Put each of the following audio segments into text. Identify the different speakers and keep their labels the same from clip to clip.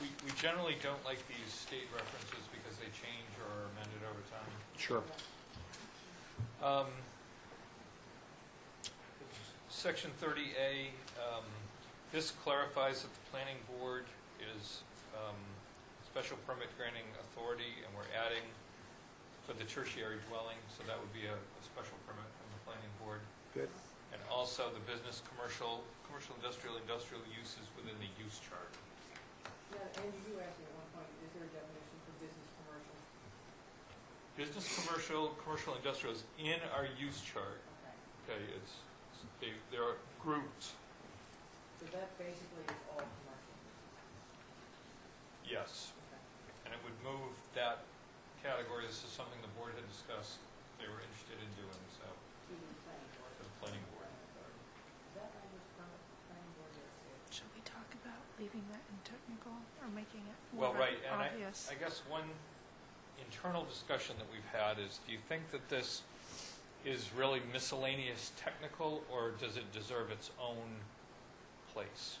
Speaker 1: We, we generally don't like these state references because they change or are amended over time.
Speaker 2: Sure.
Speaker 1: Um, Section 30A, um, this clarifies that the planning board is um, special permit granting authority, and we're adding for the tertiary dwelling, so that would be a a special permit from the planning board.
Speaker 2: Good.
Speaker 1: And also the business, commercial, commercial, industrial, industrial uses within the use chart.
Speaker 3: Yeah, Andy, you asked me at one point, is there a definition for business commercial?
Speaker 1: Business, commercial, commercial, industrial is in our use chart. Okay,
Speaker 3: Okay.
Speaker 1: it's, they, they're grouped.
Speaker 3: So that basically is all commercial.
Speaker 1: Yes.
Speaker 3: Okay.
Speaker 1: And it would move that category, this is something the board had discussed, they were interested in doing, so,
Speaker 3: To the planning board.
Speaker 1: to the planning board.
Speaker 3: Is that language from the planning board or is it?
Speaker 4: Should we talk about leaving that in technical or making it
Speaker 1: Well,
Speaker 4: more
Speaker 1: right, and I,
Speaker 4: obvious?
Speaker 1: I guess one internal discussion that we've had is, do you think that this is really miscellaneous technical, or does it deserve its own place?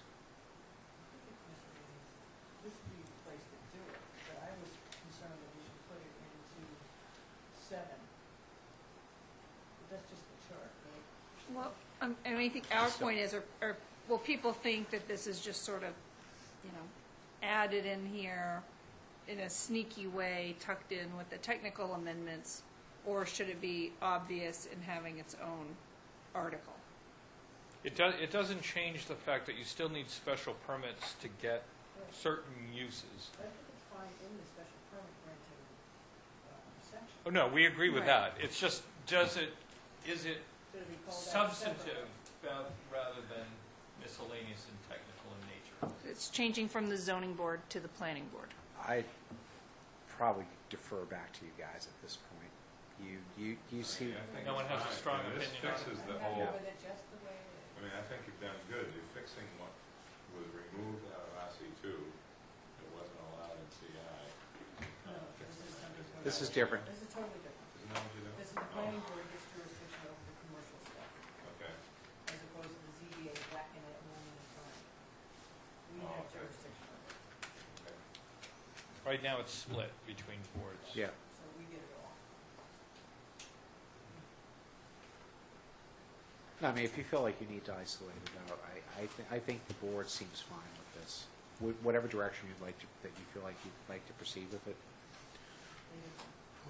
Speaker 3: This would be the place to do it, but I was concerned that we should put it into seven. But that's just the chart, right?
Speaker 5: Well, um, and I think our point is, or, or, well, people think that this is just sort of, you know, added in here in a sneaky way, tucked in with the technical amendments, or should it be obvious in having its own article?
Speaker 1: It does, it doesn't change the fact that you still need special permits to get certain uses.
Speaker 3: But I think it's fine in the special permit granting um, section.
Speaker 1: Oh, no, we agree with that.
Speaker 5: Right.
Speaker 1: It's just, does it, is it
Speaker 3: Should it be called out separate?
Speaker 1: substantive ba- rather than miscellaneous and technical in nature?
Speaker 5: It's changing from the zoning board to the planning board.
Speaker 2: I probably defer back to you guys at this point. You, you, you see,
Speaker 6: I think
Speaker 1: No one
Speaker 6: it's
Speaker 1: has a
Speaker 6: fine.
Speaker 1: strong
Speaker 6: I mean,
Speaker 1: opinion on
Speaker 6: This fixes
Speaker 3: I'm
Speaker 6: the
Speaker 3: happy
Speaker 6: whole,
Speaker 3: with it just the way it is.
Speaker 6: I mean, I think you've done good, you're fixing what was removed out of RC two, that wasn't allowed in CI.
Speaker 3: No,
Speaker 6: Uh, fixing
Speaker 3: this is
Speaker 6: that.
Speaker 3: something-
Speaker 2: this is different.
Speaker 3: This is totally different.
Speaker 6: Isn't that what you do?
Speaker 3: This is the planning board gets jurisdiction over the commercial stuff,
Speaker 6: Oh, Okay,
Speaker 3: as opposed to the ZBA whacking it one at a time. We
Speaker 6: Oh,
Speaker 3: have
Speaker 6: okay.
Speaker 3: jurisdiction over it,
Speaker 6: okay.
Speaker 1: Right now, it's split between boards.
Speaker 2: Yeah.
Speaker 3: so we get it all.
Speaker 2: I mean, if you feel like you need to isolate it out, I, I, thi- I think the board seems fine with this. Wh- Whatever direction you'd like to, that you feel like you'd like to proceed with it.
Speaker 3: They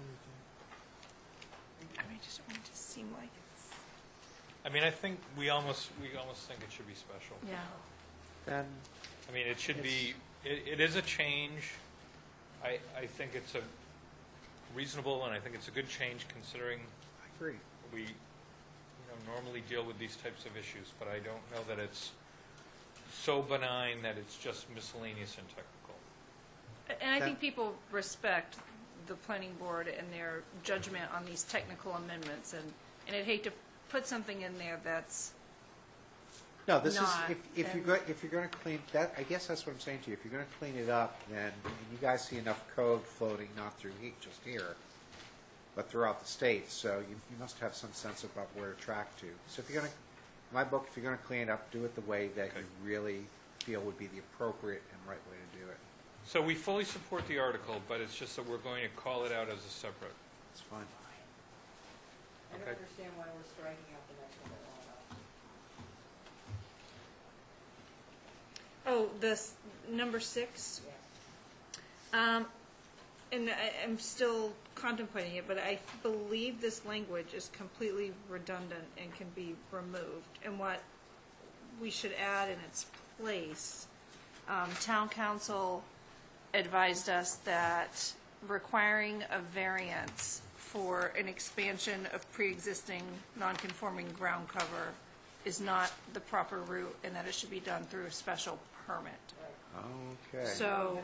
Speaker 3: do.
Speaker 4: I mean, I just want it to seem like it's,
Speaker 1: I mean, I think we almost, we almost think it should be special.
Speaker 4: yeah.
Speaker 2: Then,
Speaker 1: I mean, it should be, it, it is a change. I, I think it's a reasonable, and I think it's a good change considering
Speaker 2: I agree.
Speaker 1: we, you know, normally deal with these types of issues, but I don't know that it's so benign that it's just miscellaneous and technical.
Speaker 5: And I think
Speaker 2: That-
Speaker 5: people respect the planning board and their judgment on these technical amendments, and, and I'd hate to put something in there that's,
Speaker 2: No, this is,
Speaker 5: Not,
Speaker 2: if, if you're
Speaker 5: then-
Speaker 2: go, if you're gonna clean, that, I guess that's what I'm saying to you, if you're gonna clean it up, then, and you guys see enough code floating, not through heat, just here, but throughout the state, so you, you must have some sense about where to track to. So if you're gonna, in my book, if you're gonna clean it up, do it the way that you
Speaker 1: Okay.
Speaker 2: really feel would be the appropriate and right way to do it.
Speaker 1: So we fully support the article, but it's just that we're going to call it out as a separate.
Speaker 2: It's fine.
Speaker 3: I don't
Speaker 1: Okay.
Speaker 3: understand why we're striking out the next one at all.
Speaker 5: oh, this, number six,
Speaker 3: Yeah.
Speaker 5: Um, and I, I'm still contemplating it, but I believe this language is completely redundant and can be removed. And what we should add in its place, um, town council advised us that requiring a variance for an expansion of pre-existing non-conforming ground cover is not the proper route, and that it should be done through a special permit.
Speaker 2: Okay.
Speaker 3: We
Speaker 5: So.
Speaker 3: have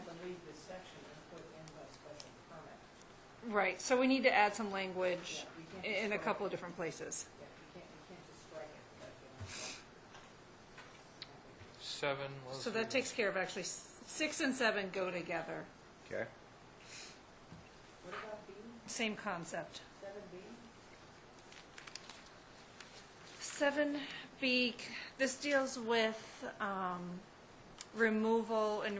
Speaker 3: to leave this section and put in the special permit.
Speaker 5: Right, so we need to add some language
Speaker 3: Yeah, we can't
Speaker 5: i- in a
Speaker 3: destroy
Speaker 5: couple of different places.
Speaker 3: Yeah, you can't, you can't just strike it without giving us
Speaker 1: Seven. what was
Speaker 5: So
Speaker 1: it?
Speaker 5: that takes care of actually, s- six and seven go together,
Speaker 2: Okay.
Speaker 3: that. What about B,
Speaker 5: same concept.
Speaker 3: seven B?
Speaker 5: Seven B, this deals with um, removal and